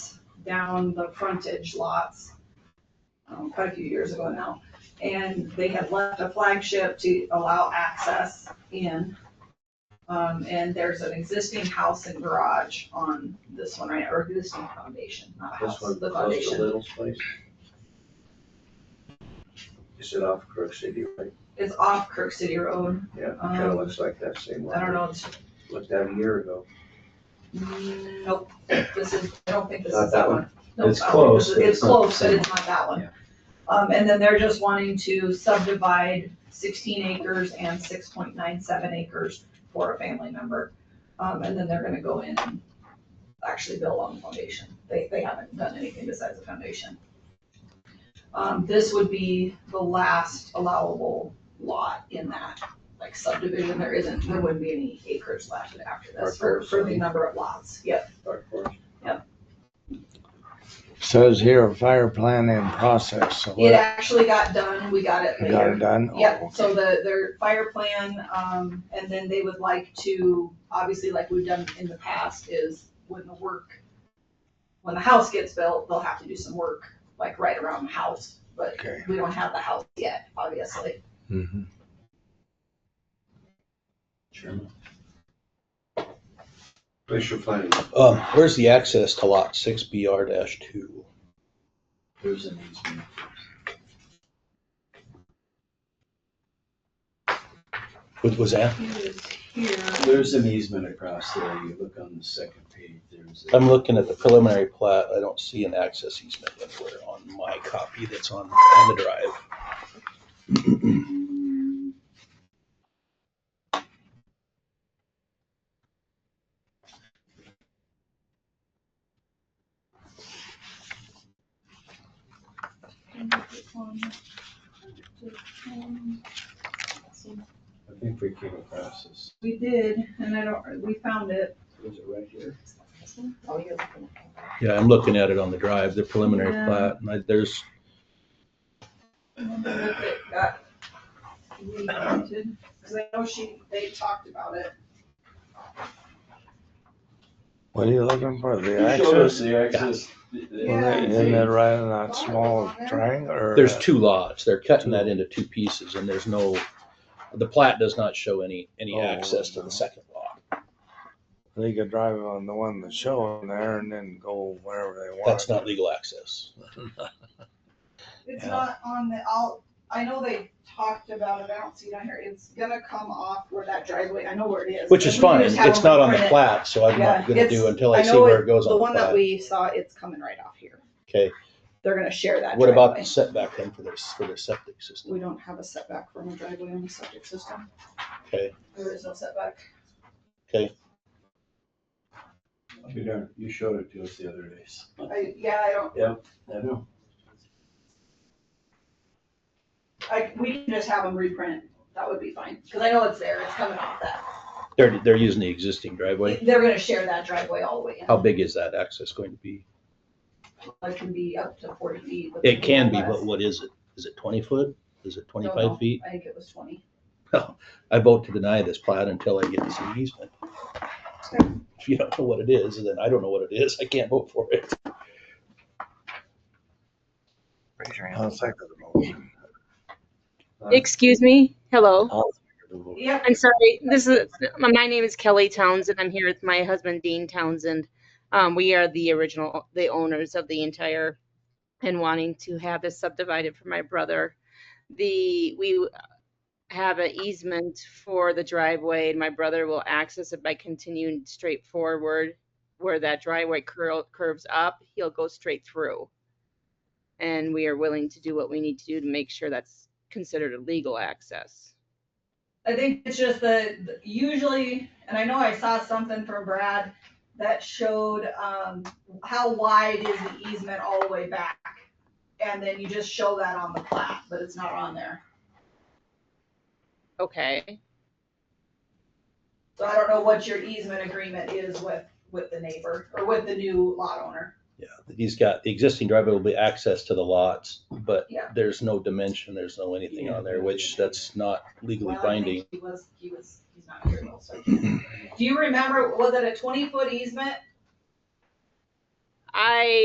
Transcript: down the frontage lots, um, quite a few years ago now. And they had left a flagship to allow access in. Um, and there's an existing house and garage on this one, right, or existing foundation, not a house, This one the close to foundation. Little's place? Is it off Crook City, right? It's off Kirk City Road, Yeah, it kinda Um, looks like that same one. I don't know, it's, Looked at a year ago. mm, nope, this is, I don't think this Not is that that one. one. Nope, It's I don't think close, this is- but It's it's not the close, but same. it's not that Yeah. one. Um, and then they're just wanting to subdivide sixteen acres and six point nine seven acres for a family member. Um, and then they're gonna go in and actually build on the foundation. They, they haven't done anything besides the foundation. Um, this would be the last allowable lot in that, like subdivision. There isn't, there wouldn't be any acreage left after this for, for the number of lots. Yep. Dark horse. Says here, fire plan in process, so It what, actually got done. We got it you got later. it done? Oh, Yep, so okay. the, their fire plan, um, and then they would like to, obviously like we've done in the past, is when the work, when the house gets built, they'll have to do some work, like right around the house, but Okay. we don't have the house yet, obviously. Mhm. Chairman. Commissioner Flanagan, Um, where's the access to lot six BR dash two? There's an easement. What was that? He is here. There's an easement across there. You look on the second page, there's. a- I'm looking at the preliminary plat. I don't see an access easement anywhere on my copy that's on, on the drive. I think we came across this. We did, and I don't, we found it. Was it right here? Oh, you're looking Yeah, I'm looking at it on the drive, the preliminary Yeah. plat, and I, there's, It got reprinted, cause I know she, they talked about it. What are you looking for, You the showed us access? the access. the- the- Well, that- Isn't it right in that small triangle or? there's two lots. They're cutting that into two pieces and there's no, the plat does not show any, any Oh, access to no. the second lot. They could drive on the one that's showing there and then go wherever they want. That's not legal access. It's Yeah. not on the, I'll, I know they talked about it, I don't see it on here, it's gonna come off where that driveway, I know where it is. Which is but fine. we just have It's them not on the print it. plat, so I'm Yeah, not gonna it's- do until I see know where it goes on The the one that plat. we saw, it's coming right off here, Okay. they're gonna share that What about driveway. the setback then for their, for their septic system? We don't have a setback from a driveway on the subject system. Okay. There is no setback. Too darn, You showed it to us the other days. I, yeah, I don't, I know. I, we can just have them reprint, that would be fine, cause I know it's there, it's coming off that. They're, they're using the existing driveway. Oh. They're gonna share that driveway all the way in. How big is that access going to be? It can be up to forty feet. but It can be, less. but what is it? Is it twenty foot? Is it Don't know. twenty-five feet? I think it was twenty. I vote to deny this plat until I get to see the easement. If you don't know what it is, then I don't know what it is. I can't vote for it. Raise your hand. I'll second the motion. Excuse me? Hello? Yeah, I'm sorry. This is, my name is Kelly Townsend. I'm here with my husband Dean Townsend. Um, we are the original, the owners of the entire, and wanting to have this subdivided for my brother. The, we have an easement for the driveway and my brother will access it by continuing straight forward where that driveway curl, curves up, he'll go straight through. And we are willing to do what we need to do to make sure that's considered a legal access. I think it's just the, the- usually, and I know I saw something from Brad that showed, um, how wide is the easement all the way back? And then you just show that on the plat, but it's not on there. Okay, So I don't know what your easement agreement is with, with the neighbor or with the new lot owner. Yeah, he's got, the existing driveway will be access to the lots, but Yeah. there's no dimension, there's no anything on there, which that's not legally Well, I think binding. He was, he was, he's not here though, so. I can't. Do you remember, was it a twenty foot easement I